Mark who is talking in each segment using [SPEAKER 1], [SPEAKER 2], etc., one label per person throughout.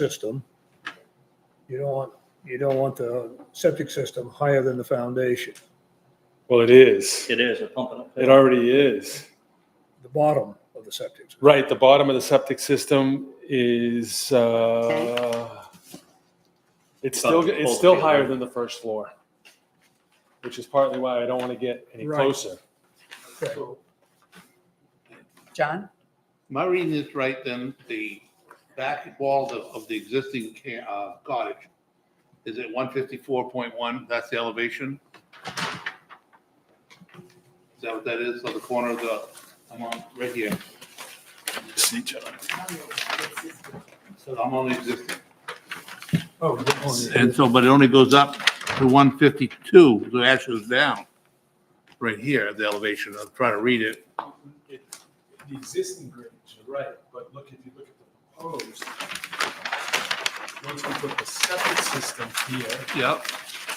[SPEAKER 1] system. You don't want, you don't want the septic system higher than the foundation,
[SPEAKER 2] Well, it is.
[SPEAKER 3] It is, they're pumping up.
[SPEAKER 2] It already is.
[SPEAKER 1] the bottom of the septic. system.
[SPEAKER 2] Right, the bottom of the septic system is, uh, it's still, it's still higher than the first floor, which is partly why I don't want to get any
[SPEAKER 1] Right.
[SPEAKER 2] closer.
[SPEAKER 1] Okay.
[SPEAKER 4] John?
[SPEAKER 5] Am I reading this right then? The back wall of, of the existing ca- uh, cottage is at one fifty-four point one? That's the elevation? Is that what that is? So the corner of the, I'm on, right here.
[SPEAKER 2] See, John.
[SPEAKER 5] So I'm on existing.
[SPEAKER 1] Oh, oh, yeah.
[SPEAKER 5] And so, but it only goes up to one fifty-two, so it actually it's down. Right here, the elevation. I'm trying to read it.
[SPEAKER 6] it- The existing grades, you're right, but look, if you look at the proposed, once we put the septic system here,
[SPEAKER 5] Yep.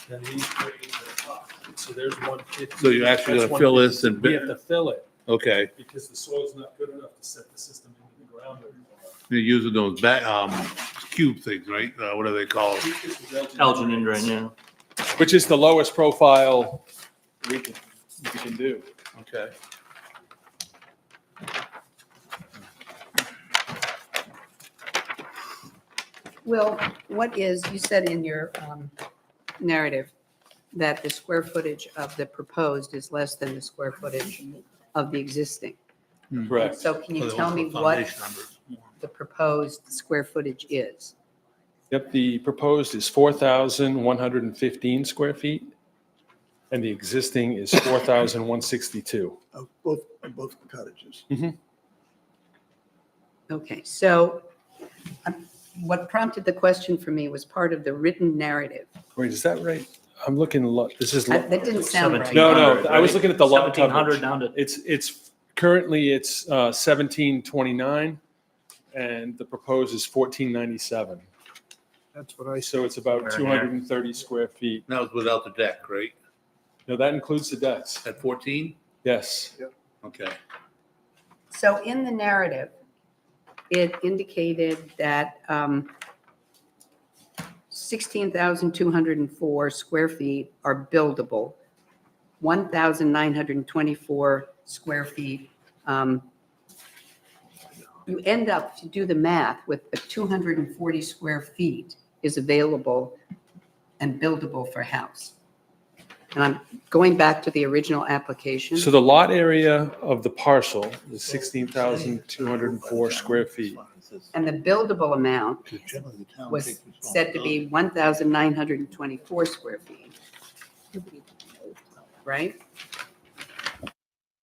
[SPEAKER 6] then these grades are up. So there's one fifty.
[SPEAKER 5] So you're actually
[SPEAKER 6] That's
[SPEAKER 5] gonna fill this
[SPEAKER 6] 150.
[SPEAKER 5] and
[SPEAKER 6] We
[SPEAKER 5] bit-
[SPEAKER 6] have to fill it
[SPEAKER 5] Okay.
[SPEAKER 6] because the soil's not good enough to set the system into the ground. anymore.
[SPEAKER 5] You're using those back, um, cube things, right? Uh, what are they called?
[SPEAKER 6] This is
[SPEAKER 3] Elgin in right now.
[SPEAKER 2] Which is the lowest profile we can, we can do.
[SPEAKER 5] Okay.
[SPEAKER 4] Will, what is, you said in your um, narrative that the square footage of the proposed is less than the square footage of the existing.
[SPEAKER 2] Correct.
[SPEAKER 4] So can
[SPEAKER 5] Oh,
[SPEAKER 4] you
[SPEAKER 5] they
[SPEAKER 4] tell
[SPEAKER 5] want
[SPEAKER 4] me
[SPEAKER 5] the
[SPEAKER 4] what
[SPEAKER 5] foundation numbers.
[SPEAKER 4] the proposed square footage is?
[SPEAKER 2] Yep, the proposed is 4,115 square feet, and the existing is 4,162.
[SPEAKER 7] of both, of both cottages.
[SPEAKER 4] Okay, so um, what prompted the question for me was part of the written narrative.
[SPEAKER 2] Wait, is that right? I'm looking, lo- this is. lo-
[SPEAKER 4] I- That didn't sound right.
[SPEAKER 2] No, no, I was looking at the lot
[SPEAKER 3] Seventeen hundred
[SPEAKER 2] coverage.
[SPEAKER 3] down to,
[SPEAKER 2] It's, it's, currently it's uh, 1729, and the proposed is 1497.
[SPEAKER 1] That's what I said.
[SPEAKER 2] So it's about 230 square feet.
[SPEAKER 5] That was without the deck, right?
[SPEAKER 2] Now, that includes the decks.
[SPEAKER 5] At fourteen?
[SPEAKER 2] Yes,
[SPEAKER 5] Okay.
[SPEAKER 4] So in the narrative, it indicated that um, 16,204 square feet are buildable, 1,924 square feet. um, You end up, if you do the math, with the 240 square feet is available and buildable for house. And I'm going back to the original application.
[SPEAKER 2] so the lot area of the parcel is 16,204 square feet.
[SPEAKER 4] And the buildable amount was said to be 1,924 square feet. Right?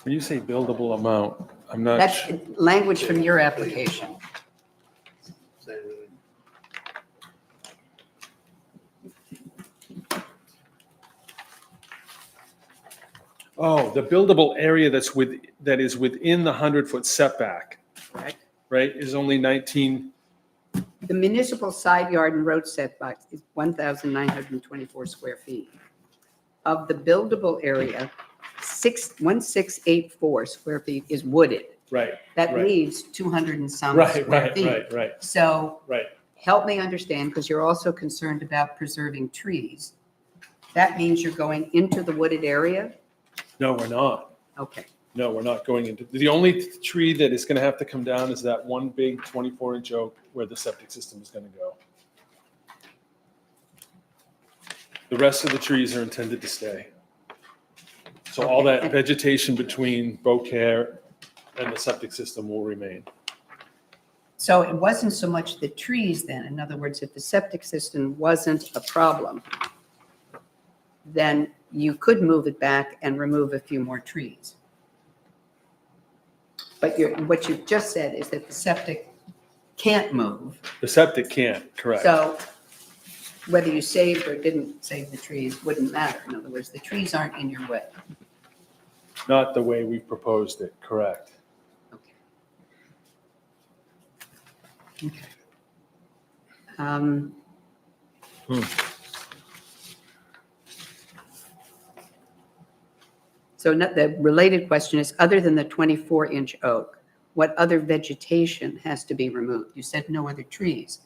[SPEAKER 2] When you say buildable amount, I'm not,
[SPEAKER 4] That's
[SPEAKER 2] su-
[SPEAKER 4] language from your application.
[SPEAKER 2] oh, the buildable area that's with, that is within the 100-foot setback,
[SPEAKER 4] Right.
[SPEAKER 2] right, is only 19,
[SPEAKER 4] The municipal side yard and road setback is 1,924 square feet. Of the buildable area, six 1,684 square feet is wooded.
[SPEAKER 2] right,
[SPEAKER 4] That
[SPEAKER 2] Right.
[SPEAKER 4] leaves 200 and some
[SPEAKER 2] right,
[SPEAKER 4] Um, square
[SPEAKER 2] right,
[SPEAKER 4] feet.
[SPEAKER 2] right, right,
[SPEAKER 4] So
[SPEAKER 2] right.
[SPEAKER 4] help me understand, because you're also concerned about preserving trees. That means you're going into the wooded area?
[SPEAKER 2] No, we're not.
[SPEAKER 4] Okay,
[SPEAKER 2] No, we're not going into, the only tree that is going to have to come down is that one big 24-inch oak where the septic system is going to go. The rest of the trees are intended to stay. So all that vegetation between Beaucaire and the septic system will remain.
[SPEAKER 4] so it wasn't so much the trees then, in other words, if the septic system wasn't a problem, then you could move it back and remove a few more trees. But you're, what you've just said is that the septic can't move.
[SPEAKER 2] The septic can't, correct.
[SPEAKER 4] So whether you saved or didn't save the trees wouldn't matter. In other words, the trees aren't in your way.
[SPEAKER 2] Not the way we proposed it, correct.
[SPEAKER 4] Okay. Okay. Um, So not, the related question is, other than the 24-inch oak, what other vegetation has to be removed? You said no other trees.